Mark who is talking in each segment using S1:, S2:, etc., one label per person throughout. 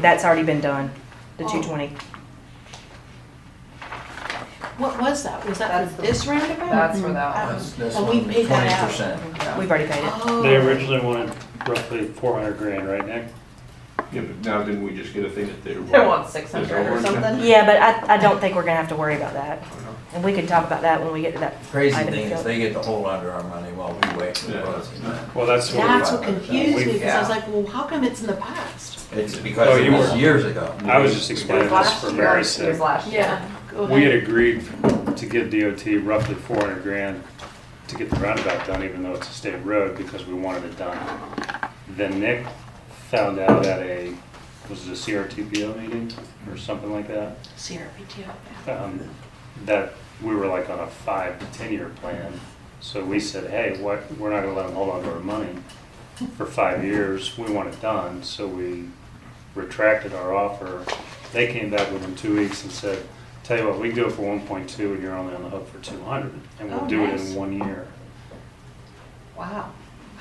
S1: That's already been done, the
S2: Oh.
S1: two twenty.
S2: What was that? Was that
S3: That's
S2: for
S3: the-
S2: this roundabout?
S3: That's for that one.
S4: That's, that's
S2: And we
S4: one,
S2: paid that
S4: twenty
S2: out.
S4: percent.
S1: We've already paid it.
S2: Oh.
S5: They originally wanted roughly four hundred grand, right, Nick?
S6: Yeah, but now didn't we just get a thing that they
S3: They
S6: were?
S3: want six hundred or
S6: There's a word.
S3: something.
S1: Yeah, but I, I don't think we're gonna have to worry about that.
S2: Uh-huh.
S1: And we can talk about that when we get to that.
S4: Crazy
S1: item,
S4: thing
S1: so-
S4: is they get to hold under our money while we wait for the
S6: Yeah.
S4: buzzing.
S5: Well, that's
S2: That's
S5: what,
S2: what confused me because I was like, well, how come it's in the past?
S4: It's
S5: Oh,
S4: because it
S5: you
S4: was
S5: were-
S4: years ago.
S5: I was just explaining this
S3: Last
S5: for
S3: year,
S5: Mary's
S3: It
S5: sake.
S3: was last year.
S2: Go
S5: We had
S2: ahead.
S5: agreed to give DOT roughly four hundred grand to get the roundabout done, even though it's a state road, because we wanted it done. Then Nick found out at a, was it a CRTPO meeting or something like that?
S2: CRPTO.
S5: um, that we were like on a five to ten year plan. So we said, hey, what, we're not gonna let them hold on to our money for five years, we want it done, so we retracted our offer. They came back within two weeks and said, tell you what, we can do it for one point two and you're only on the hook for two hundred, and
S2: Oh,
S5: we'll do it
S2: nice.
S5: in one year.
S2: Wow.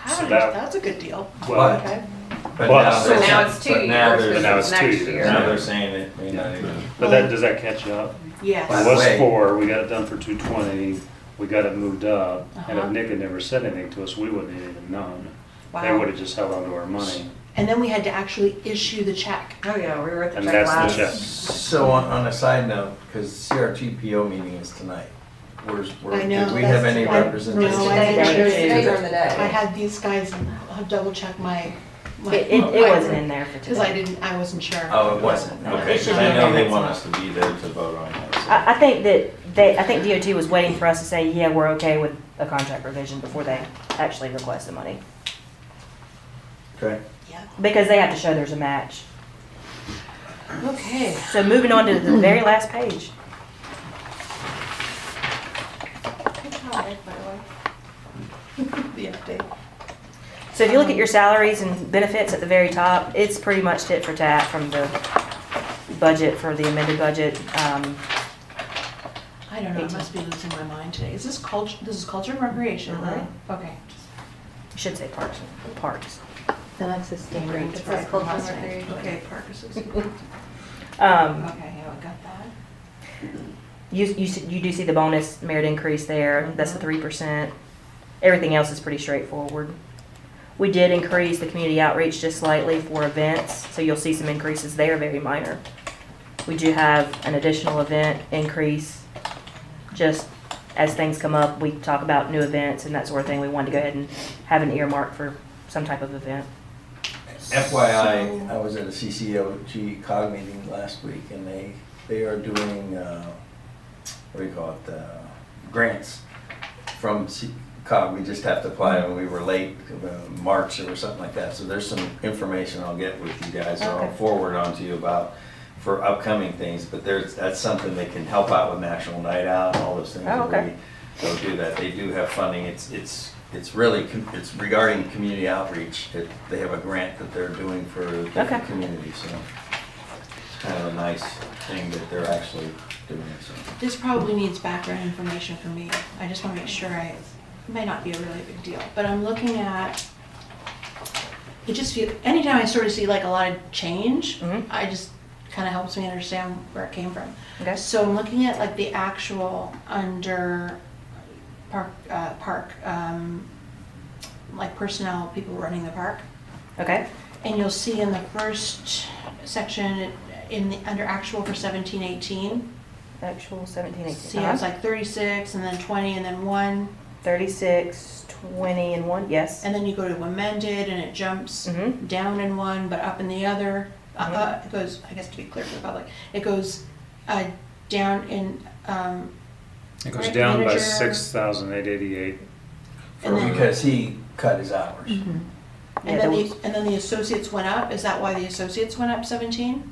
S5: So
S2: How,
S5: that-
S2: that's a good deal.
S5: Well,
S2: Okay.
S4: But
S5: Well,
S4: now
S5: so
S4: they're-
S3: now it's two
S4: but now
S3: years
S4: they're-
S5: But now it's two
S3: Next
S5: years.
S3: year.
S4: Now they're saying it may not even.
S5: But that, does that catch you up?
S4: By
S2: Yes.
S5: It
S4: the
S5: was
S4: way-
S5: four, we got it done for two twenty, we got it moved up, and if
S2: Uh-huh.
S5: Nick had never said anything to us, we wouldn't have even known. They
S2: Wow.
S5: would have just held on to our money.
S2: And then we had to actually issue the check.
S3: Oh, yeah, we were at the
S5: And
S3: check
S5: that's the
S3: last.
S5: check.
S4: So on, on a side note, because CRTPO meeting is tonight, where's, where,
S2: I know,
S4: did we have
S2: that's-
S4: any
S2: I- no, I
S4: representation?
S2: didn't
S4: Today.
S2: sure it is.
S3: Today or the day.
S2: I had these guys double check my, my.
S1: It, it, it wasn't in there for
S2: Because I
S1: today.
S2: didn't, I wasn't sure.
S4: Oh, it wasn't,
S2: No, it
S4: okay, 'cause
S2: should be
S4: I
S2: in
S4: know
S2: there.
S4: they want us to be there to vote on that. so-
S1: I, I think that they, I think DOT was waiting for us to say, yeah, we're okay with a contract revision before they actually request the money.
S4: Okay.
S2: Yeah.
S1: Because they have to show there's a match.
S2: Okay.
S1: So moving on to the very last page.
S2: Good job, Ed, by the way. The update.
S1: So if you look at your salaries and benefits at the very top, it's pretty much tit for tat from the budget, for the amended budget. Um,
S2: I don't know, I must be losing my mind today. Is this culture, this is culture and recreation,
S1: Uh-huh.
S2: right? Okay.
S1: I should say parks, parks.
S7: The next is standard.
S2: It's
S7: It's
S2: right from
S7: called
S2: last
S7: Hunter.
S2: night. Okay, Parker
S1: Um,
S2: Okay, yeah, we got that.
S1: You, you, s- you do see the bonus merit increase there, that's the
S2: Mhm.
S1: three percent. Everything else is pretty straightforward. We did increase the community outreach just slightly for events, so you'll see some increases there, very minor. We do have an additional event increase, just as things come up, we talk about new events and that sort of thing, we wanted to go ahead and have an earmark for some type of event.
S4: FYI, I was at a CCOG cog meeting last week and they, they are doing, uh, what do you call it, uh, grants from C- cog. We just have to apply and we were late, uh, March or something like that. So there's some information I'll get with you guys or I'll
S1: Okay.
S4: forward on to you about for upcoming things. But there's, that's something that can help out with National Night Out, all those things.
S1: Oh,
S4: that
S1: okay.
S4: we- They'll do that. They do have funding. It's, it's, it's really, com- it's regarding community outreach. It- They have a grant that they're doing for
S1: Okay.
S4: different communities, so. It's kind of a nice thing that they're actually doing it, so.
S2: This probably needs background information for me. I just want to make sure I, it may not be a really big deal, but I'm looking at, it just feel, anytime I sort of see like a lot of change,
S1: Mhm.
S2: I just, kind of helps me understand where it came from.
S1: Okay.
S2: So I'm looking at like the actual under park, uh, park, um, like personnel, people running the park.
S1: Okay,
S2: And you'll see in the first section, in the, under actual for seventeen eighteen,
S1: actual seventeen,
S2: see, I
S1: eighteen,
S2: was
S1: Uh-huh.
S2: like thirty-six, and then twenty, and then one,
S1: thirty-six, twenty and one, yes.
S2: and then you go to amended, and it jumps
S1: Mhm.
S2: down in one, but up in the other. Uh,
S1: Mhm.
S2: uh, it goes, I guess to be clear for the public, it goes, uh, down in, um,
S5: It
S2: goes
S5: goes
S2: Right, down
S5: down
S2: by
S5: by
S2: manager.
S5: six thousand eight eighty-eight.
S2: and then. Mm-hmm.
S4: Because he cut his hours.
S1: Yeah,
S2: And then
S1: there
S2: the, and then the associates went up, is that why the associates went up seventeen?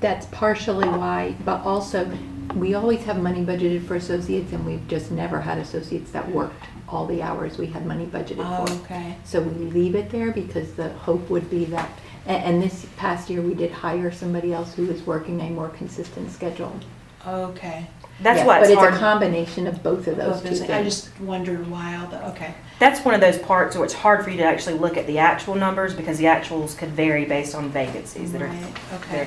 S7: That's partially why, but also, we always have money budgeted for associates, and we've just never had associates that worked all the hours we had money budgeted for.
S2: Ah, Oh, okay.
S7: So we leave it there because the hope would be that, a- and this past year, we did hire somebody else who was working a more consistent schedule.
S2: Okay.
S1: That's
S7: Yeah,
S1: why it's
S7: But
S1: hard.
S7: it's a combination of both of those two
S2: I
S7: things.
S2: just wondered why all the, okay.
S1: that's one of those parts where it's hard for you to actually look at the actual numbers because the actuals could vary based on vacancies that are
S2: Right, okay.
S1: that are